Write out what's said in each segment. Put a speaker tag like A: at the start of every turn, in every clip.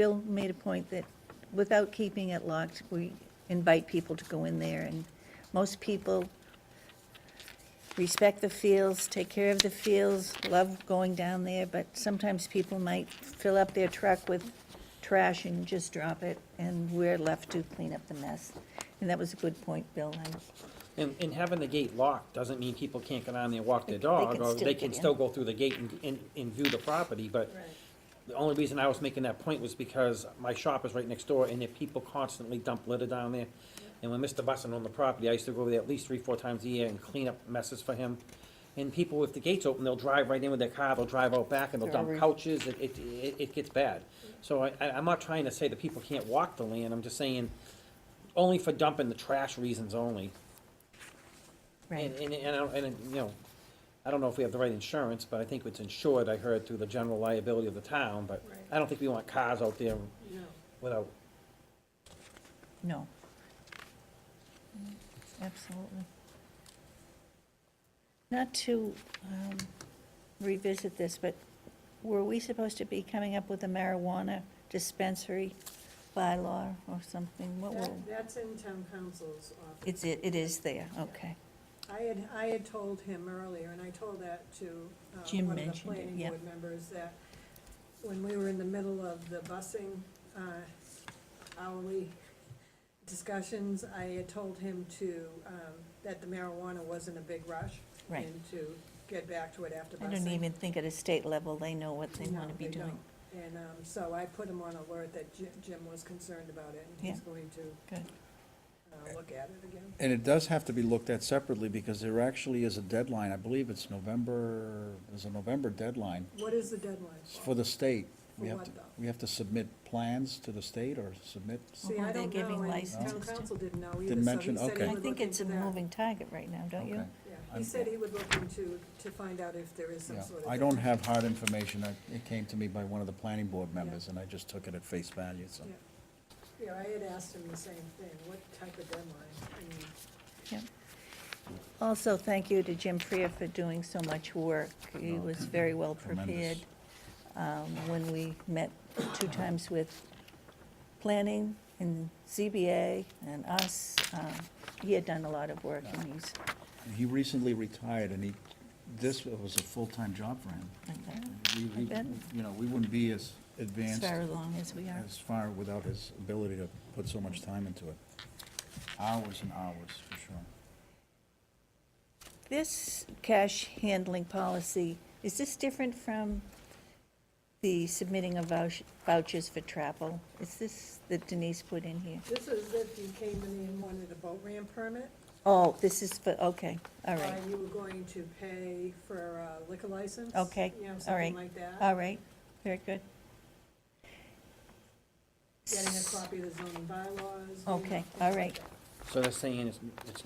A: Bill made a point that without keeping it locked, we invite people to go in there, and most people respect the fields, take care of the fields, love going down there, but sometimes people might fill up their truck with trash and just drop it, and we're left to clean up the mess. And that was a good point, Bill. I-
B: And, and having the gate locked doesn't mean people can't get on there, walk their
A: They can
B: dog, or
A: still
B: they
A: get
B: can
A: in.
B: still go through the gate and, and, and view the property, but the only reason I was making that point was because my shop is right next door, and there people constantly dump litter down there. And when Mr. Bussin owned the property, I used to go over there at least three, four times a year and clean up messes for him. And people, if the gate's open, they'll drive right in with their car, they'll drive out back, and they'll dump couches, it, it, it- it gets bad. So I, I, I'm not trying to say that people can't walk the land, I'm just saying, only for dumping the trash reasons only. And, and, and, I don't- and, you know, I don't know if we have the right insurance, but I think it's insured, I heard, through the general liability of the town, but
C: Right.
B: I don't think we want cars out there
C: No,
B: without,
A: No. Mm, Absolutely. Not to um, revisit this, but were we supposed to be coming up with a marijuana dispensary bylaw or something? What were,
C: that, that's in town council's office.
A: Oh. it's, it it is there, okay.
C: I had, I had told him earlier, and I told that to, uh,
A: Jim
C: one of the
A: mentioned it,
C: planning
A: yeah.
C: board members, that when we were in the middle of the busing, uh, hourly discussions, I had told him to, um, that the marijuana wasn't a big rush.
A: Right.
C: And to get back to it after busing.
A: I don't even think at a state level, they know what they
C: No,
A: want to be
C: they
A: doing.
C: don't. And, um, so I put him on alert that Jim, Jim was concerned about it, and he's
A: Yeah.
C: going to,
A: Good.
C: uh, look at it again.
D: And it does have to be looked at separately, because there actually is a deadline, I believe it's November, there's a November deadline
C: What is the deadline?
D: for the state. We
C: For
D: have
C: what,
D: to,
C: though?
D: we have to submit plans to the state or submit,
C: See,
A: Well,
C: I
A: they're
C: don't
A: giving
C: know, and
A: licenses
C: town
A: to-
C: council didn't know either.
D: Didn't
C: so he
D: mention,
C: said he
D: okay.
A: I
C: would
A: think
C: look
A: it's a
C: into that.
A: moving target right now, don't you?
D: okay.
C: Yeah, he
D: I'm-
C: said he would look into, to find out if there is some
D: Yeah,
C: sort of.
D: I don't have hard information, I- it came to me by one of the planning board members, and I just took it at face value, so.
C: Yeah. Yeah, I had asked him the same thing, what type of deadline? I mean,
A: Yep. Also, thank you to Jim Freer for doing so much work. He was very well prepared.
D: Oh, Tremendous.
A: Um, When we met two
D: Uh-huh.
A: times with planning and ZBA and us, um, he had done a lot of work and he's,
D: And He recently retired, and he, this was a full-time job for him. We- we-
A: I bet.
D: You know, we wouldn't be as
A: as
D: advanced
A: far along as we are.
D: as far without his ability to put so much time into it. Hours and hours, for sure.
A: This cash handling policy, is this different from the submitting of vouch- vouchers for travel? Is this that Denise put in here?
C: This is if you came in and wanted a boat ramp permit,
A: Oh, this is for, okay, all
C: or
A: right,
C: you were going to pay for a liquor license.
A: Okay,
C: You know,
A: all
C: something
A: right,
C: like that,
A: all right, very good.
C: getting a copy of the zoning bylaws. you
A: Okay,
C: know, things
A: all
C: like
A: right.
C: that.
B: so they're saying it's, it's,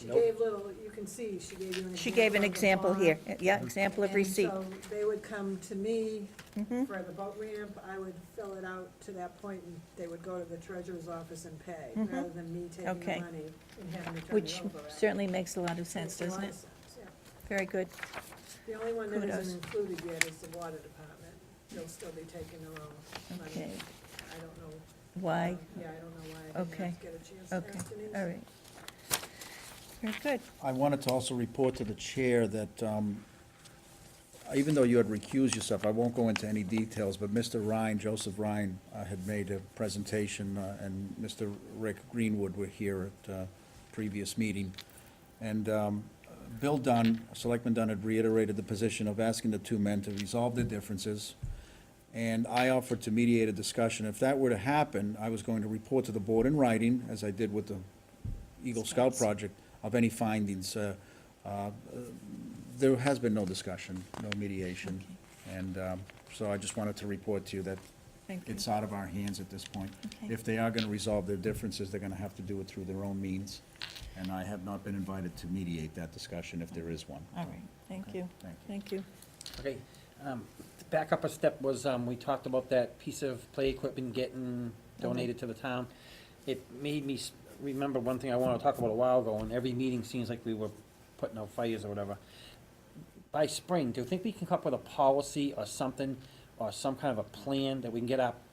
C: She
B: Nope.
C: gave little, you can see, she gave you an example.
A: She gave an
C: of the
A: example here,
C: bond.
A: yeah, example of
C: And
A: receipt.
C: so they would come to me
A: Mm-hmm.
C: for the boat ramp, I would fill it out to that point, and they would go to the treasurer's office and pay, rather than me taking
A: Mm-hmm. Okay.
C: the money and having to turn
A: Which
C: it over. after.
A: certainly makes a lot of sense,
C: Makes a lot
A: doesn't
C: of
A: it?
C: sense, yeah.
A: Very good,
C: The only one that
A: Kudos.
C: isn't included yet is the water department, they'll still be taking their own money.
A: okay.
C: I don't know.
A: Why?
C: um, Yeah, I don't know why I
A: Okay.
C: didn't get a chance to
A: Okay,
C: ask Denise.
A: all right. Very good,
D: I wanted to also report to the chair that, um, even though you had recused yourself, I won't go into any details, but Mr. Ryan, Joseph Ryan, uh, had made a presentation, uh, and Mr. Rick Greenwood were here at uh previous meeting. And um, Bill Dunn, Selectman Dunn, had reiterated the position of asking the two men to resolve their differences, and I offered to mediate a discussion. If that were to happen, I was going to report to the board in writing, as I did with the Eagle Scout project, of any findings. Uh, uh, There has been no discussion, no mediation, and um, so I just wanted to report to you that
A: Thank you.
D: it's out of our hands at this point.
A: Okay.
D: If they are gonna resolve their differences, they're gonna have to do it through their own means, and I have not been invited to mediate that discussion if there is one.
A: all right, thank you,
D: Thank
A: thank
D: you.
A: you.
B: okay. Um, back up a step was, um, we talked about that piece of play equipment getting donated to the town. It made me s- remember one thing I wanted to talk about a while ago, and every meeting seems like we were putting out fires or whatever. by spring, do you think we can come up with a policy or something, or some kind of a plan that we can get our